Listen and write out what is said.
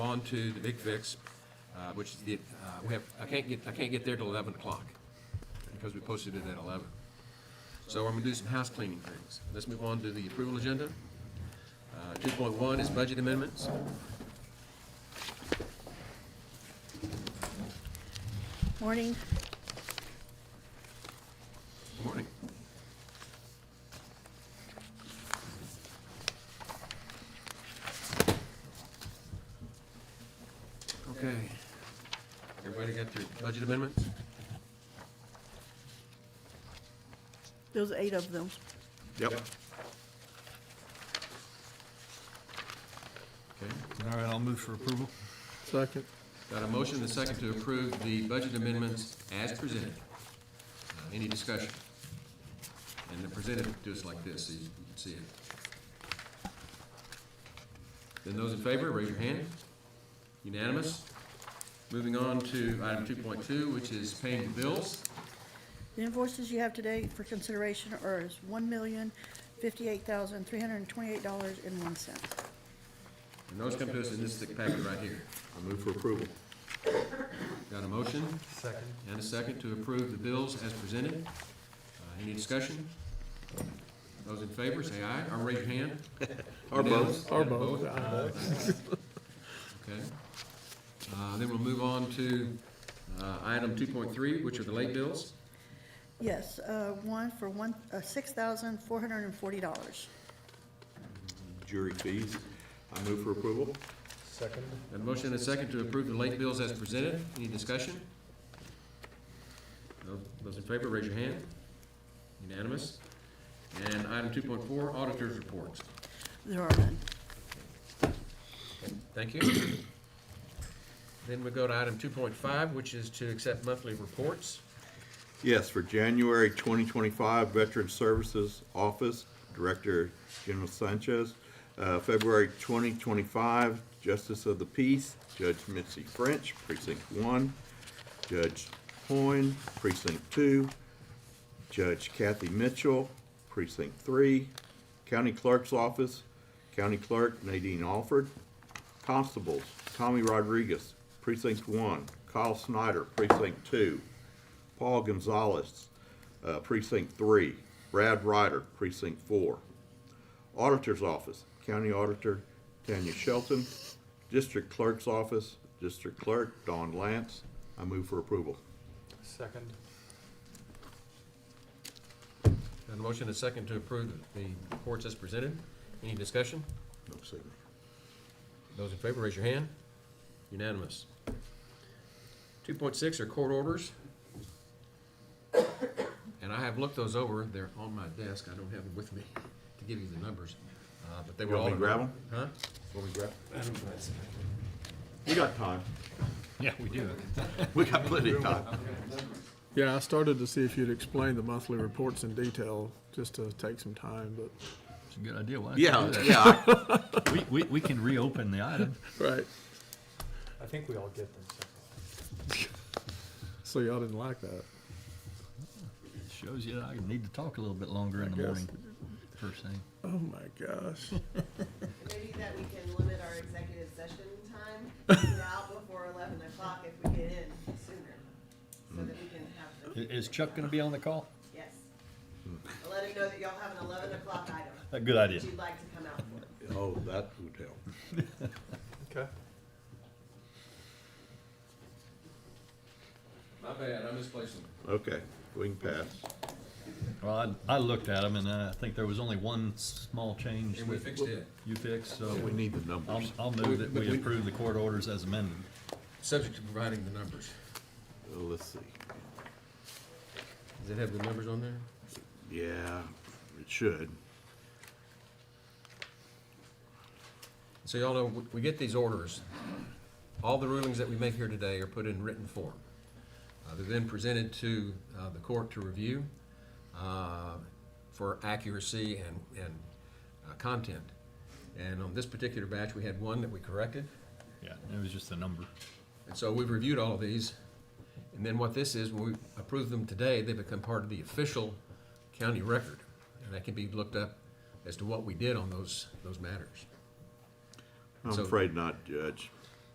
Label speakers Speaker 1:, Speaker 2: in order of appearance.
Speaker 1: on to the Big Fix, uh, which is the, uh, we have, I can't get, I can't get there till 11 o'clock because we posted it at 11. So I'm going to do some house cleaning things. Let's move on to the approval agenda. Uh, 2.1 is budget amendments.
Speaker 2: Morning.
Speaker 1: Good Morning. Okay. Everybody got their budget amendments?
Speaker 2: There's eight of them.
Speaker 3: Yep.
Speaker 1: Okay.
Speaker 4: All right, I'll move for approval.
Speaker 3: Second.
Speaker 1: Got a motion and a second to approve the budget amendments as presented. Uh, Any discussion? And they're presented to us like this, so you can see it. Then those in favor, raise your hand. Unanimous. Moving on to item two point two, which is paying the bills.
Speaker 2: The invoices you have today for consideration are is one million, fifty-eight thousand, three hundred and twenty-eight dollars and one cent.
Speaker 1: And those come to us in this thick packet right here.
Speaker 3: I move for approval.
Speaker 1: Got a motion? Second. And a second to approve the bills as presented. Uh, Any discussion? Those in favor, say aye, or raise your hand.
Speaker 3: Or both.
Speaker 1: Or both. Okay. Uh, Then we'll move on to uh, item 2.3, which are the late bills.
Speaker 2: Yes, uh, one for one, uh, six thousand, four hundred and forty dollars.
Speaker 3: Jury fees. I move for approval.
Speaker 1: Got a motion and a second to approve the late bills as presented. Any discussion? No- Those in favor, raise your hand. Unanimous. And item 2.4, auditors' reports.
Speaker 2: There are none.
Speaker 1: Thank you. Then we go to item two point five, which is to accept monthly reports.
Speaker 3: Yes, for January 2025, Veteran Services Office Director General Sanchez. Uh, February 2025, Justice of the Peace Judge Mitzi French, Precinct 1. Judge Hoyne, Precinct 2. Judge Kathy Mitchell, Precinct 3. County Clerk's Office, County Clerk Nadine Alford. Constables, Tommy Rodriguez, Precinct 1. Kyle Snyder, Precinct 2. Paul Gonzalez, uh, Precinct 3. Brad Ryder, Precinct 4. Auditor's Office, County Auditor Tanya Shelton. District Clerk's Office, District Clerk Don Lance. I move for approval.
Speaker 5: Second.
Speaker 1: Got a motion and a second to approve the reports as presented. Any discussion?
Speaker 3: No signal.
Speaker 1: Those in favor, raise your hand. Unanimous. Two point six are court orders. And I have looked those over. They're on my desk. I don't have them with me to give you the numbers, uh, but they were
Speaker 3: You
Speaker 1: all.
Speaker 3: want me to
Speaker 1: in-
Speaker 3: grab
Speaker 1: Huh?
Speaker 3: Will we grab? We got time.
Speaker 4: Yeah, we do.
Speaker 3: We got plenty of time.
Speaker 6: Yeah, I started to see if you'd explain the monthly reports in detail, just to take some time, but,
Speaker 4: It's a good idea. Why don't you
Speaker 3: Yeah,
Speaker 4: do that?
Speaker 3: yeah. I-
Speaker 4: We, we, we can reopen the item.
Speaker 6: right,
Speaker 5: I think we all get them.
Speaker 6: so y'all didn't like that.
Speaker 4: Shows you that I need to talk a little bit longer in the
Speaker 6: guess.
Speaker 4: morning, first thing.
Speaker 6: Oh my gosh.
Speaker 7: Maybe that we can limit our executive session time, get out before eleven o'clock if we get in sooner, so that we can have the,
Speaker 4: I- Is Chuck gonna be on the call?
Speaker 7: yes. I'll Let him know that y'all have an eleven o'clock item
Speaker 4: A good idea.
Speaker 7: that you'd like to come out for.
Speaker 3: Oh, that would help.
Speaker 5: Okay.
Speaker 1: My bad. I misplaced them.
Speaker 3: Okay, we can pass.
Speaker 4: Well, I, I looked at them and uh, I think there was only one small change
Speaker 1: And we
Speaker 4: that
Speaker 1: fixed it.
Speaker 4: you fixed, so
Speaker 3: We need the
Speaker 4: I'll,
Speaker 3: numbers.
Speaker 4: I'll move that we approve the court orders as amended.
Speaker 1: Subject to providing the numbers.
Speaker 3: Um, Let's see.
Speaker 1: Does it have the numbers on there?
Speaker 3: Yeah, it should.
Speaker 1: So y'all know, we- we get these orders. All the rulings that we make here today are put in written form. Uh, They're then presented to uh, the court to review uh, for accuracy and, and uh, content. And on this particular batch, we had one that we corrected.
Speaker 4: Yeah, it was just a number.
Speaker 1: And so we've reviewed all of these. And then what this is, when we approve them today, they become part of the official county record. And that can be looked up as to what we did on those, those matters.
Speaker 3: I'm
Speaker 1: So-
Speaker 3: afraid not, Judge.